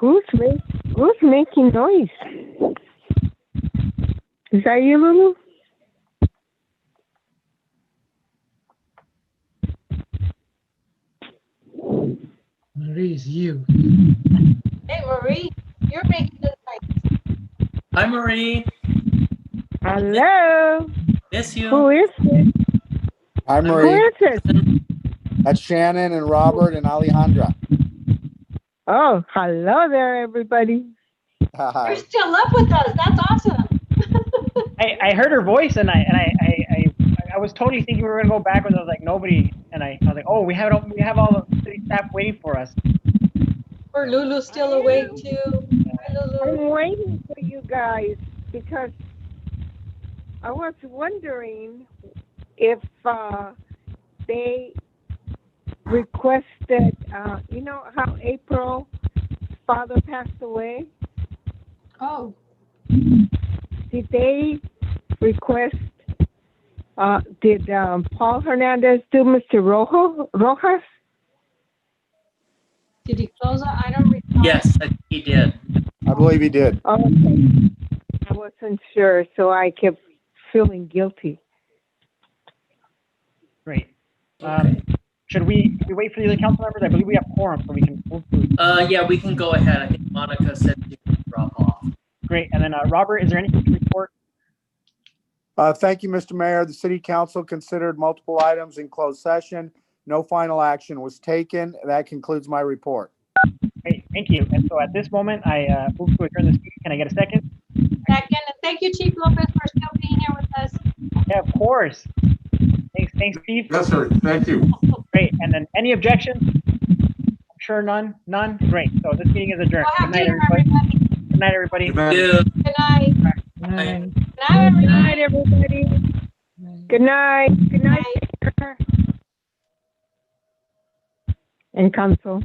Who's make, who's making noise? Is that you, Lulu? Marie is you. Hey, Marie, you're making the noise. Hi, Marie. Hello. Miss Who you. is it? Hi, Who Marie. is it? That's Shannon and Robert and Alejandra. Oh, hello there, everybody. You're Hi. still up with us. That's awesome. I, I heard her voice and I and I, I, I I was totally thinking we were gonna go back and I was like nobody and I, I was like oh we have it all, we have all the city staff waiting for us. Or Lulu's still awake too. Hi, Lulu. I'm waiting for you guys because I was wondering if uh, they requested, uh, you know, how April father passed away. Oh, Did they request? Uh, did um, Paul Hernandez do Mr. Rojo, Rojas? did he close it? I don't recall. Yes, I think he did. I believe he did. Oh, okay. I wasn't sure, so I kept feeling guilty. Great. Um, should we should we wait for the other council members? I believe we have quorum so we can move to Uh, yeah, we can go ahead. I think Monica said she could drop off. great. And then uh, Robert, is there anything to report? Uh, Thank you, Mr. Mayor. The city council considered multiple items in closed session. No final action was taken. That concludes my report. Great, thank you. And so at this moment, I uh, move to adjourn this meeting. Can I get a second? Second, and thank you, Chief Lopez, for still being here with us. Yeah, of course. Thanks, thanks, Steve. Yes, sir. Thank you. Great. And then any objections? I'm sure none. None. Great. So this meeting is adjourned. Well, Good happy night, dinner, everybody. everybody. Good night, everybody. Good night. Dude. Good night. Aye. Good Good night, everybody. night, everybody. Good night. Good Good night, night. Mayor and council.